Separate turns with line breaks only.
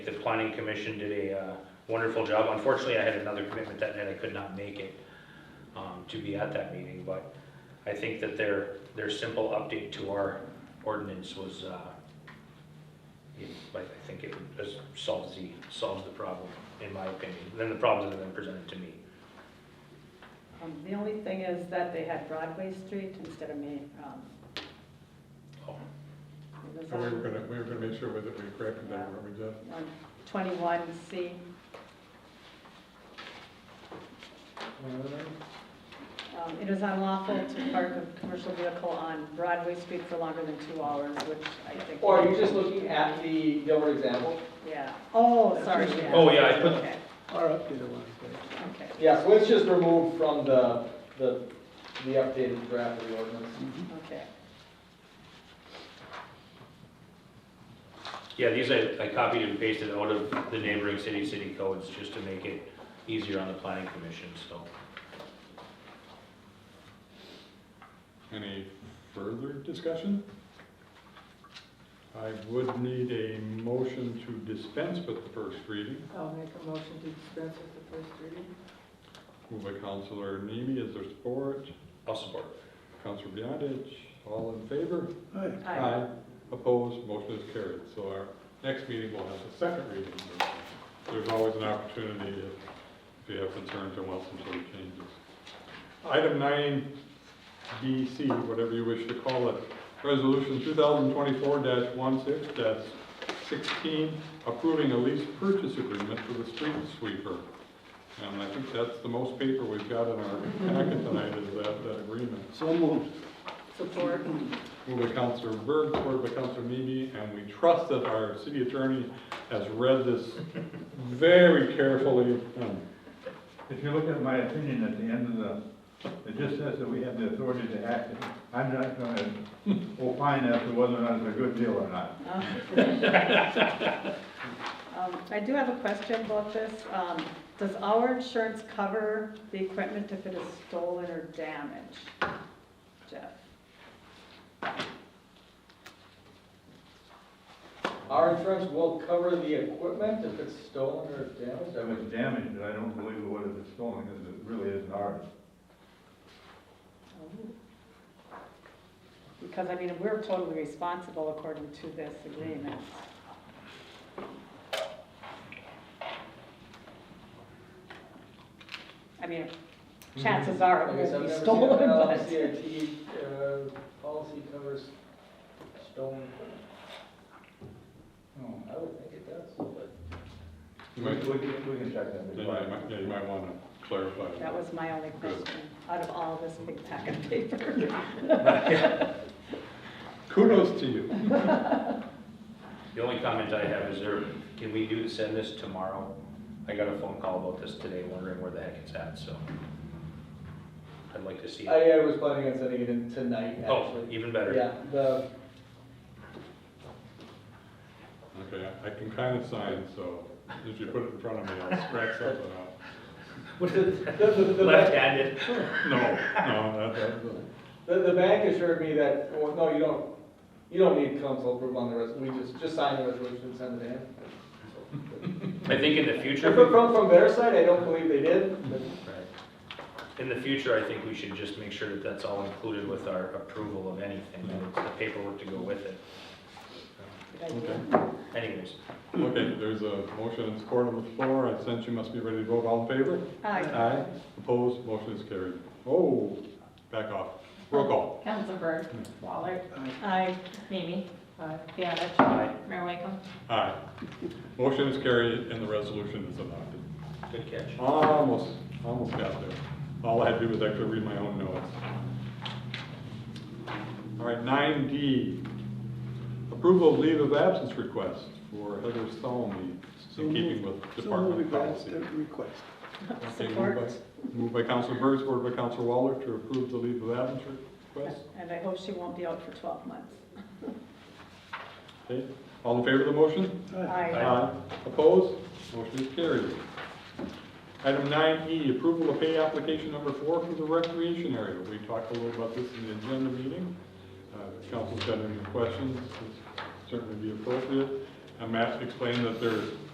planning commission did a uh, wonderful job. Unfortunately, I had another commitment that night, I could not make it um, to be at that meeting, but I think that their, their simple update to our ordinance was, uh, you know, I I think it just solves the, solves the problem, in my opinion, Then the problems that have been presented to me.
Um, The only thing is that they had Broadway Street instead of Main. um,
Oh,
it was
And we were
on-
gonna, we were gonna make sure that we corrected that, weren't we, Jeff?
on 21C. Um, It is unlawful to park a commercial vehicle on Broadway Street for longer than two hours, which I think.
Or are you just looking at the Gilbert example?
Yeah. Oh, sorry.
Oh, yeah, I put-
Okay,
Our updated one.
okay.
Yeah, so it's just removed from the, the, the updated draft of the ordinance.
Okay.
Yeah, these I, I copied and pasted out of the neighboring city, city codes, just to make it easier on the planning commission, so.
Any further discussion? I would need a motion to dispense with the first reading.
I'll make a motion to dispense with the first reading.
Moved by Counselor Nemi, is there support?
I'll support.
Counselor Beyondich, all in favor?
Aye.
Aye.
Opposed, motion is carried. So our next meeting will have the second reading. There's always an opportunity if if you have concerns or want some sort of changes. Item nine B C, whatever you wish to call it, resolution two thousand twenty-four 16 sixteen, approving a lease purchase agreement for the street sweeper. And I think that's the most paper we've got in our packet tonight is that, that agreement.
So moved.
Support.
Moved by Counselor Berg, supported by Counselor Mimi, and we trust that our city attorney has read this very carefully. Um,
If you look at my opinion at the end of the, it just says that we have the authority to act. I'm not gonna opine as to whether or not it's a good deal or not.
Um, I do have a question about this. Um, Does our insurance cover the equipment if it is stolen or damaged? Jeff?
Our insurance will cover the equipment if it's stolen or damaged. I
If
mean,
it's damaged, I don't believe it would have been stolen, because it really isn't ours.
Because, I mean, we're totally responsible according to this agreement. I mean, chances are
Mm-hmm. I
it
guess
will be
I've never seen
stolen,
an
but.
LCIT, uh, policy covers stolen equipment.
Oh.
I would think it does, but.
You
We
might,
we can, we can check that.
yeah, you might- yeah, you might want to clarify.
That was my only
Good.
question, out of all this big pack of paper.
Kudos to you.
The only comment I have is there, can we do, send this tomorrow? I got a phone call about this today, wondering where the heck it's at, so. I'd like to see it.
I uh, was planning on sending it in tonight,
Oh,
actually.
even better.
Yeah, the,
Okay, I- I can kind of sign, so if you put it in front of me, I'll scratch something out.
what is, the, the, the.
Left-handed.
No, no, that, that,
The, the bank assured me that, well, no, you don't, you don't need council approval on the rest, we just, just sign the resolution and send it in.
I think in the future,
But From, from their side, I don't believe they did, but
in the future, I think we should just make sure that that's all included with our approval of anything, and it's the paperwork to go with it. Anyways,
okay, there's a motion and support on the floor. I sense you must be ready to vote. All in favor?
Aye.
Aye. Opposed, motion is carried. Oh, back off. Roll call.
Council Berg, Waller,
Aye.
Mimi,
Aye.
Beyondich.
Aye.
Mayor Whitcomb.
Aye. Motion is carried and the resolution is adopted.
good catch.
Almost, almost got there. All I had to do was actually read my own notes. All right, nine D, approval of leave of absence request for Heather Salmi,
So
in keeping with
moved. So
department
moved, that's
policy.
the request.
Okay, moved by-
Support,
Moved by Counselor Burr, supported by Counselor Waller to approve the leave of absence request.
and I hope she won't be out for 12 months.
Okay, all in favor of the motion?
Aye.
Aye. Opposed? Motion is carried. Item nine E, approval of pay application number four for the recreation area. We talked a little about this in the agenda meeting. Uh, If council's got any questions, it's certainly be appropriate. And Matt Um, explained that there's